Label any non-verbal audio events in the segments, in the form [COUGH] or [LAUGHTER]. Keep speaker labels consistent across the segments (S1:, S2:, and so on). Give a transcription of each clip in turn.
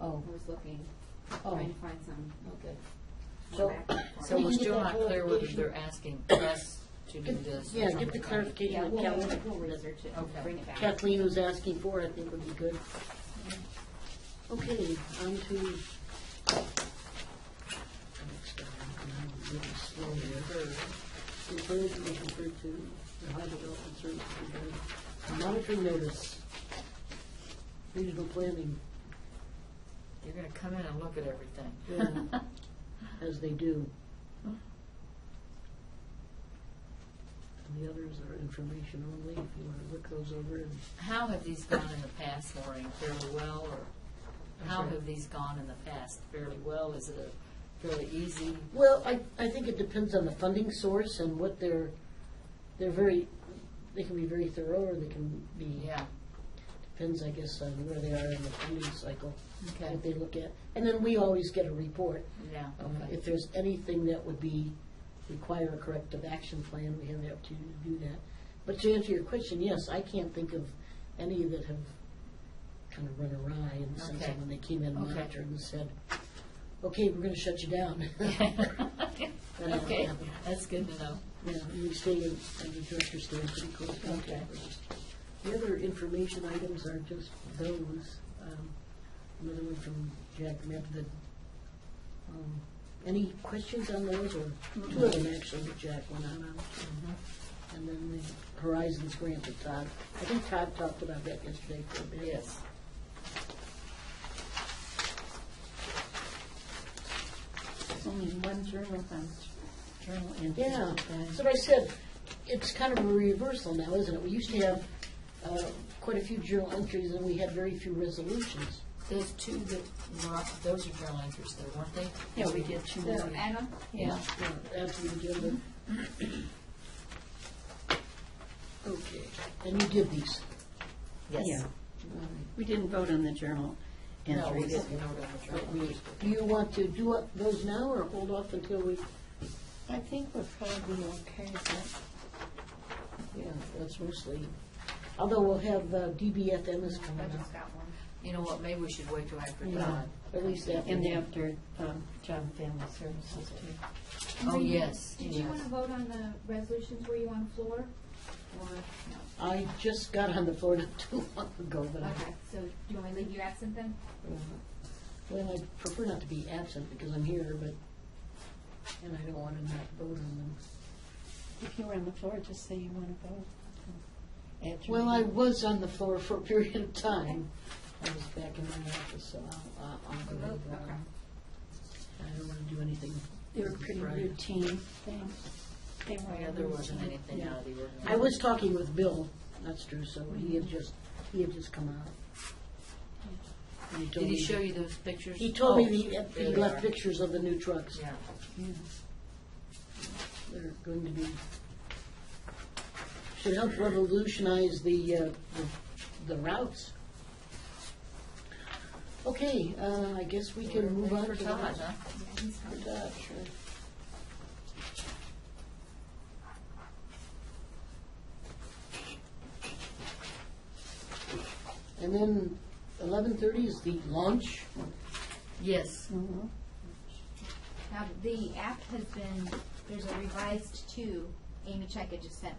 S1: Oh,
S2: I was looking,
S1: oh,
S2: trying to find some.
S1: okay.
S2: some
S1: So-
S2: background for
S3: So
S2: it.
S1: We
S3: we're
S1: can get
S3: still
S1: that
S3: not clear whether
S1: clarification.
S3: they're asking us to do this. or
S4: Yeah, get the
S3: something.
S2: Yeah,
S4: clarification
S2: we'll,
S4: that
S2: we'll-
S4: Kathleen-
S2: we'll research it and
S3: Okay.
S2: bring it back.
S4: Kathleen was asking for, I think would be good. Okay, on to. next item. I'm a little slow here. Referred to, referred to, the Ohio Development Services Board. Monitoring notice. Regional planning,
S3: You're gonna come in and look at everything.
S4: Yeah. as they do. And the others are information only, if you want to look those over and
S3: [LAUGHS] How have these gone in the past, Maureen, fairly well, or
S4: I'm
S3: how
S4: sorry?
S3: have these gone in the past fairly well? Is it a fairly easy?
S4: Well, I, I think it depends on the funding source and what they're, they're very, they can be very thorough or they can be,
S3: Yeah,
S4: depends, I guess, on where they are in the funding cycle,
S3: okay,
S4: what they look at. And then we always get a report. [LAUGHS]
S3: yeah, [LAUGHS]
S4: Uh,
S3: okay.
S4: If there's anything that would be, require a corrective action plan, we have the opportunity to do that. But to answer your question, yes, I can't think of any that have kind of run awry in the sense
S3: Okay.
S4: of when they came in
S3: Okay.
S4: monitored and said, okay, we're going to shut you down. [LAUGHS]
S3: Okay, that's good to know.
S4: Yeah, we stay, in- and the director stays pretty close
S3: Okay.
S4: contact with us. The other information items are just those. um, Another one from Jack Medved. Um, Any questions on those, or two of them actually that Jack went on on? And then the Horizons grant that Todd, I think Todd talked about that yesterday for a bit.
S3: Yes.
S2: There's only one journal fund, journal entry.
S4: Yeah, that's what I said. It's kind of a reversal now, isn't it? We used to have uh, quite a few journal entries, and we had very few resolutions.
S3: Those two that, were up- those are journal entries though, weren't they?
S2: Yeah, we did two.
S4: Yeah.
S2: Anna?
S3: Yeah.
S4: Yeah, after you give them. Okay, and you give these.
S3: Yes.
S5: Yeah. We didn't vote on the journal
S3: No, we
S5: entries.
S3: didn't vote on the journal entries.
S4: Do you want to do up those now or hold off until we,
S5: I think we're probably okay with
S4: yeah, that's mostly, although we'll have uh, DBFM is
S2: I
S4: coming up,
S2: just got one.
S3: You know what, maybe we should wait till after
S4: Yeah.
S3: Todd.
S4: at least
S5: that.
S4: after.
S5: And after um, Job and Family Services too.
S3: Oh,
S2: Maureen,
S3: yes,
S2: Did you
S3: yes.
S2: want to vote on the resolutions, were you on the floor? Or, no?
S4: I just got on the floor [LAUGHS] not too long ago, but I,
S2: Okay, so do you want me to leave you absent then?
S4: well, I prefer not to be absent because I'm here, but, and I don't want to not vote on them.
S5: If you were on the floor, just say you want to vote. At your
S4: Well, I
S5: meeting.
S4: was on the floor for a period of time. I was back in my office, so uh, I'll, I'll- I'll go with that.
S2: Okay.
S4: I don't want to do anything.
S5: They were pretty
S4: Right.
S5: routine things. They were
S3: Yeah, there wasn't
S5: routine.
S3: anything out of the ordinary.
S4: I was talking with Bill, that's true, so he had just, he had just come out. And he told
S3: Did he
S4: me-
S3: show you those pictures?
S4: He told me
S3: Oh,
S4: the-
S3: there
S4: he
S3: they
S4: left
S3: are.
S4: pictures of the new trucks.
S3: Yeah.
S4: They're going to be, should help revolutionize the, uh, the the routes. Okay, uh, I guess we can move on
S3: For
S4: to the
S3: Todd,
S4: next.
S3: huh?
S2: Yeah, he's fine.
S4: And then eleven thirty is the launch.
S3: Yes.
S4: Mm.
S5: Mhm.
S2: Now, the app has been, there's a revised two, Amy Checa just sent,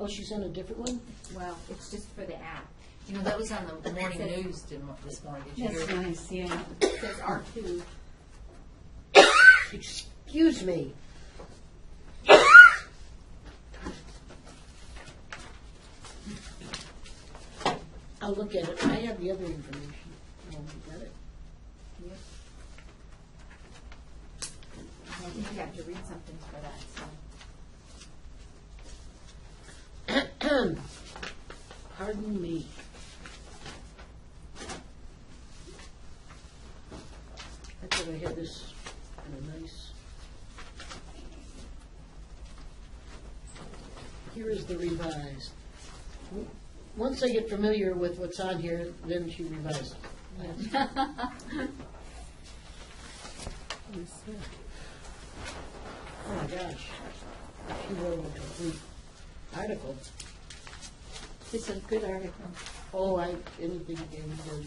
S4: Oh, she sent a different one?
S2: well, it's just for the app.
S3: You know, that was on the morning news didn't it, this morning, did you hear?
S5: That's
S3: it?
S5: nice, yeah.
S2: It says R two,
S4: Excuse me. I'll look at it. I have the other information. I don't get it.
S2: I think you have to read something for that, so.
S4: [COUGHS] Pardon me. I thought I had this in a nice. Here is the revised. W- Once I get familiar with what's on here, then she revises. Oh my gosh. She wrote a complete article.
S5: It's a good article.
S4: Oh, I, anything, anything.